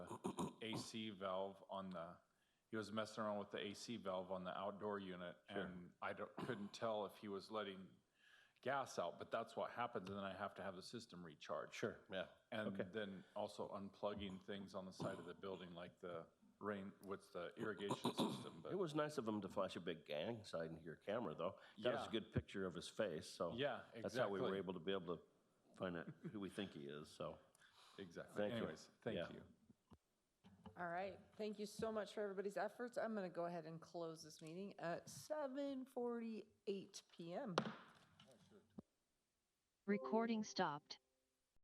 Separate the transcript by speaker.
Speaker 1: AC valve on the, he was messing around with the AC valve on the outdoor unit, and I don't- couldn't tell if he was letting gas out, but that's what happens, and then I have to have the system recharged.
Speaker 2: Sure, yeah.
Speaker 1: And
Speaker 2: Okay.
Speaker 1: then also unplugging things on the side of the building, like the rain, what's the irrigation system,
Speaker 2: It
Speaker 1: but,
Speaker 2: was nice of him to flash a big gang sign to your camera, though. Got us a
Speaker 1: Yeah.
Speaker 2: good picture of his face, so.
Speaker 1: Yeah,
Speaker 2: That's how we were
Speaker 1: exactly.
Speaker 2: able to be able to find out who we think he is, so.
Speaker 1: exactly.
Speaker 2: Thank you.
Speaker 1: Anyways,
Speaker 2: Yeah.
Speaker 1: thank you.
Speaker 3: All right. Thank you so much for everybody's efforts. I'm going to go ahead and close this meeting at 7:48 PM.
Speaker 4: Recording stopped.